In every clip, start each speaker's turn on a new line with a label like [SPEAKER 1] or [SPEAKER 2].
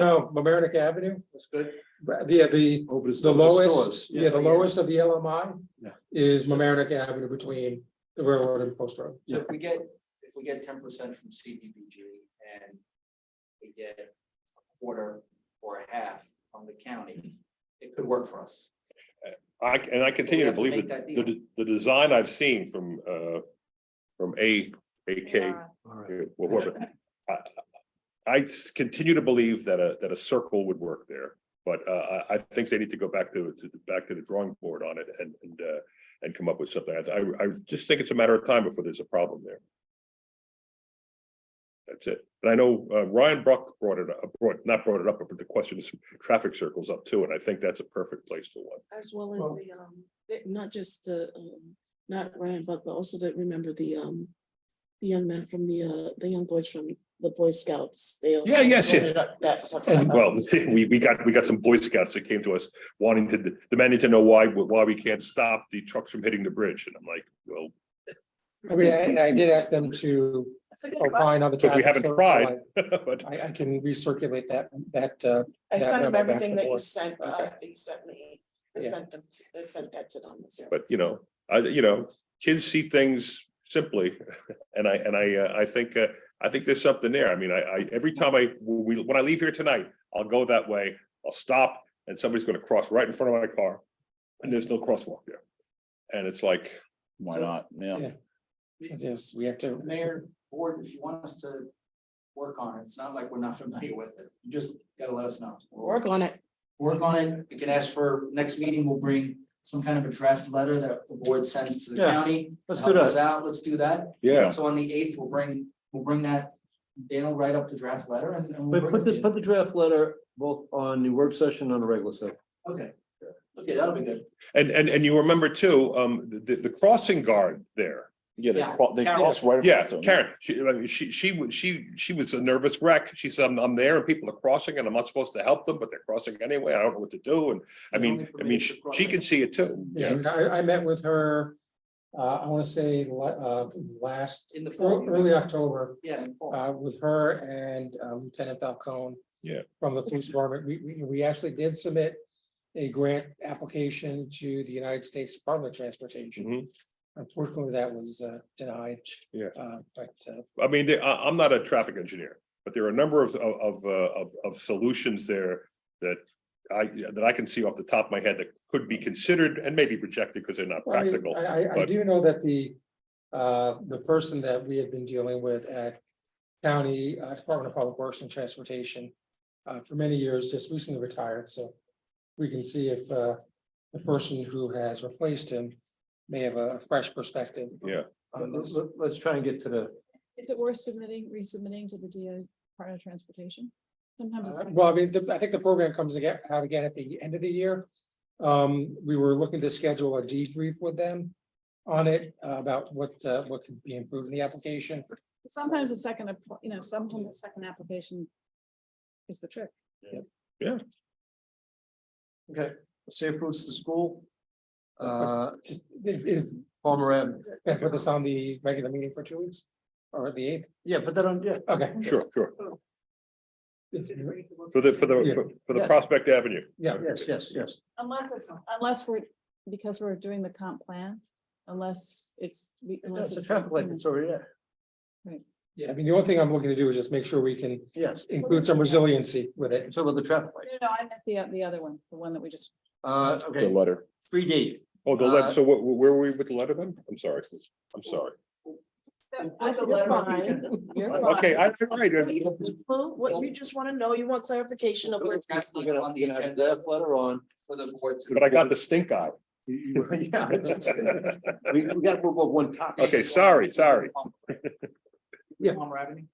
[SPEAKER 1] No, Mamaroneck Avenue,
[SPEAKER 2] That's good.
[SPEAKER 1] but the, the,
[SPEAKER 2] Oh, but it's
[SPEAKER 1] the
[SPEAKER 2] still the
[SPEAKER 1] lowest,
[SPEAKER 2] stores,
[SPEAKER 1] yeah,
[SPEAKER 3] Oh,
[SPEAKER 1] the lowest of the LMI.
[SPEAKER 2] Yeah.
[SPEAKER 1] Is Mamaroneck Avenue between the railroad and post road.
[SPEAKER 3] So if we get, if we get ten percent from CDBG and we get a quarter or a half from the county, it could work for us.
[SPEAKER 4] I, and I continue to
[SPEAKER 3] have to
[SPEAKER 4] believe
[SPEAKER 3] make
[SPEAKER 4] that
[SPEAKER 3] that
[SPEAKER 4] the, de- the design I've seen from, uh, from A, AK,
[SPEAKER 2] All
[SPEAKER 4] uh,
[SPEAKER 2] right.
[SPEAKER 4] whatever. I, I s- continue to believe that a, that a circle would work there, but, uh, I, I think they need to go back to, to, the- back to the drawing board on it and, and, uh, and come up with something. I, I- I just think it's a matter of time before there's a problem there. That's it. And I know, uh, Ryan Bruck brought it up, brought, not brought it up, but the question is traffic circles up too, and I think that's a perfect place for one.
[SPEAKER 5] As well as
[SPEAKER 1] Well-
[SPEAKER 5] the, um, the- not just the, um, not Ryan Buck, but also that, remember the, um, the young men from the, uh, the young boys from the Boy Scouts. They also
[SPEAKER 4] Yeah, yes, yeah.
[SPEAKER 5] voted up that-
[SPEAKER 1] And-
[SPEAKER 4] Well, we, we got, we got some Boy Scouts that came to us wanting to, demanding to know why, why we can't stop the trucks from hitting the bridge. And I'm like, well,
[SPEAKER 1] I mean, I, I did ask them to
[SPEAKER 5] That's a good question.
[SPEAKER 1] opine on the.
[SPEAKER 4] Because we
[SPEAKER 1] traffic
[SPEAKER 4] haven't
[SPEAKER 1] circle.
[SPEAKER 4] tried. but
[SPEAKER 1] I, I can recirculate that, that, uh,
[SPEAKER 5] I
[SPEAKER 1] that
[SPEAKER 5] sent
[SPEAKER 1] memo
[SPEAKER 5] them
[SPEAKER 1] back to
[SPEAKER 5] everything that you
[SPEAKER 1] board.
[SPEAKER 5] sent, uh,
[SPEAKER 1] Okay.
[SPEAKER 5] that you sent me. I
[SPEAKER 1] Yeah.
[SPEAKER 5] sent them, to- I sent that to them. so.
[SPEAKER 4] but you know, I, you know, kids see things simply. And I, and I, uh, I think, uh, I think there's something there. I mean, I, I, every time I, we, when I leave here tonight, I'll go that way, I'll stop and somebody's gonna cross right in front of my car. And there's no crosswalk there. And it's like,
[SPEAKER 6] Why not? Yeah.
[SPEAKER 1] Yeah. Yes, we have to,
[SPEAKER 3] Mayor, board, if you want us to work on it, it's not like we're not familiar with it. You just gotta let us know. We'll
[SPEAKER 5] Work on it.
[SPEAKER 3] Work on it. We can ask for, next meeting, we'll bring some kind of a draft letter that the board sends to the
[SPEAKER 2] Yeah,
[SPEAKER 3] county. to
[SPEAKER 2] let's do
[SPEAKER 3] help us
[SPEAKER 2] that.
[SPEAKER 3] Out, let's do that.
[SPEAKER 4] yeah,
[SPEAKER 3] So on the eighth, we'll bring, we'll bring that, Dan will write up the draft letter and. and
[SPEAKER 2] But
[SPEAKER 3] we'll bring
[SPEAKER 2] put
[SPEAKER 3] it to
[SPEAKER 2] the,
[SPEAKER 3] you.
[SPEAKER 2] put the draft letter both on the work session and on the regular session.
[SPEAKER 3] Okay, okay, that'll be good.
[SPEAKER 4] and, and, and you remember too, um, the, the crossing guard there.
[SPEAKER 6] Yeah, they
[SPEAKER 3] Yeah.
[SPEAKER 6] cro- they
[SPEAKER 3] Carol.
[SPEAKER 6] cross right. across
[SPEAKER 4] Yeah,
[SPEAKER 6] them.
[SPEAKER 4] Karen, she, like, she, she, wa- she, she was a nervous wreck. She said, I'm, I'm there and people are crossing and I'm not supposed to help them, but they're crossing anyway. I don't know what to do. And I
[SPEAKER 3] They're
[SPEAKER 4] mean,
[SPEAKER 3] only
[SPEAKER 4] I mean,
[SPEAKER 3] permitted to
[SPEAKER 4] she
[SPEAKER 3] cross.
[SPEAKER 4] she can see it too.
[SPEAKER 1] yeah, I mean, I, I met with her, uh, I wanna say, la- uh, last,
[SPEAKER 3] In the fall.
[SPEAKER 1] ear- early October.
[SPEAKER 3] Yeah. in fall.
[SPEAKER 1] uh, with her and uh, Lieutenant Falcone.
[SPEAKER 4] Yeah.
[SPEAKER 1] From the police department, we, we, we actually did submit a grant application to the United States Department of Transportation.
[SPEAKER 4] Mhm.
[SPEAKER 1] Unfortunately, that was uh, denied.
[SPEAKER 4] Yeah.
[SPEAKER 1] Uh, but, uh,
[SPEAKER 4] I mean, they- I, I'm not a traffic engineer, but there are a number of, of, of, uh, of, of solutions there that I, that I can see off the top of my head that could be considered and maybe rejected because they're not
[SPEAKER 1] I, mean,
[SPEAKER 4] practical.
[SPEAKER 1] I, I- I
[SPEAKER 4] but-
[SPEAKER 1] do know that the, uh, the person that we had been dealing with at County uh, Department of Public Works and Transportation uh, for many years, just recently retired, so we can see if uh, the person who has replaced him may have a fresh perspective.
[SPEAKER 4] Yeah.
[SPEAKER 3] Uh,
[SPEAKER 1] on
[SPEAKER 2] Let's,
[SPEAKER 1] this.
[SPEAKER 2] let's try and get to the,
[SPEAKER 7] Is it worth submitting, resubmitting to the DO part of transportation? Sometimes it's
[SPEAKER 1] Uh,
[SPEAKER 7] like,
[SPEAKER 1] Well, I mean, the- I think the program comes again, out again at the end of the year. Um, we were looking to schedule a debrief with them on it uh, about what, uh, what could be improved in the application.
[SPEAKER 7] sometimes the second, app- you know, sometimes the second application is the trick.
[SPEAKER 2] okay, safe routes to school. Uh,
[SPEAKER 1] Just, is,
[SPEAKER 2] Palmer Ave.
[SPEAKER 1] can I put this on the regular meeting for two weeks or the eighth?
[SPEAKER 2] Yeah, put that on, yeah.
[SPEAKER 1] Okay.
[SPEAKER 4] Sure, sure.
[SPEAKER 1] It's-
[SPEAKER 4] For the, for
[SPEAKER 1] Yeah.
[SPEAKER 4] the, for the
[SPEAKER 2] Yeah.
[SPEAKER 4] Prospect Avenue.
[SPEAKER 1] Yeah.
[SPEAKER 2] Yes, yes, yes.
[SPEAKER 7] Unless it's, unless we're, because we're doing the comp plan, unless it's. we-
[SPEAKER 2] No,
[SPEAKER 7] unless
[SPEAKER 2] It's a
[SPEAKER 7] it's-
[SPEAKER 2] traffic light, it's already there.
[SPEAKER 1] Yeah, I mean, the only thing I'm looking to do is just make sure we can
[SPEAKER 2] Yes,
[SPEAKER 1] include some resiliency with it.
[SPEAKER 2] it's over the traffic light.
[SPEAKER 7] No, no, I meant the, the other one, the one that we just,
[SPEAKER 2] Uh,
[SPEAKER 6] The
[SPEAKER 2] okay,
[SPEAKER 6] letter.
[SPEAKER 2] three D.
[SPEAKER 4] Oh, the
[SPEAKER 2] Uh,
[SPEAKER 4] lead, so what, where were we with the letter then? I'm sorry, I'm sorry.
[SPEAKER 5] You're fine. You're fine.
[SPEAKER 4] Okay, I, all right, I-
[SPEAKER 5] Well, What, you just want to know, you want clarification of where.
[SPEAKER 3] Put the draft letter on the agenda
[SPEAKER 2] letter on.
[SPEAKER 3] for the board to.
[SPEAKER 4] but I got the stink eye.
[SPEAKER 2] Yeah. We, we gotta move up one topic.
[SPEAKER 4] Okay, sorry, sorry.
[SPEAKER 1] Yeah.
[SPEAKER 3] Palmer Avenue.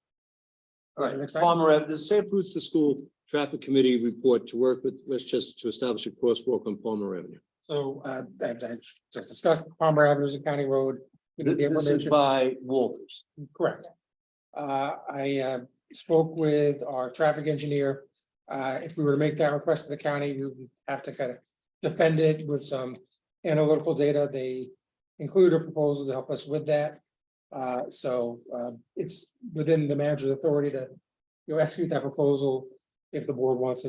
[SPEAKER 2] All right,
[SPEAKER 1] Next item.
[SPEAKER 2] Palmer Ave, the Safe Routes to School Traffic Committee report to work with Westchester to establish a crosswalk on Palmer Avenue.
[SPEAKER 1] So, uh, I, I just discussed Palmer Avenue is a county road. We
[SPEAKER 2] Th-
[SPEAKER 1] did the
[SPEAKER 2] This is
[SPEAKER 1] aforementioned-
[SPEAKER 2] by Walters.
[SPEAKER 1] Correct. Uh, I, uh, spoke with our traffic engineer. Uh, if we were to make that request to the county, we would have to kind of defend it with some analytical data. They include a proposal to help us with that. Uh, so, um, it's within the manager's authority to, you know, execute that proposal. if the board wants us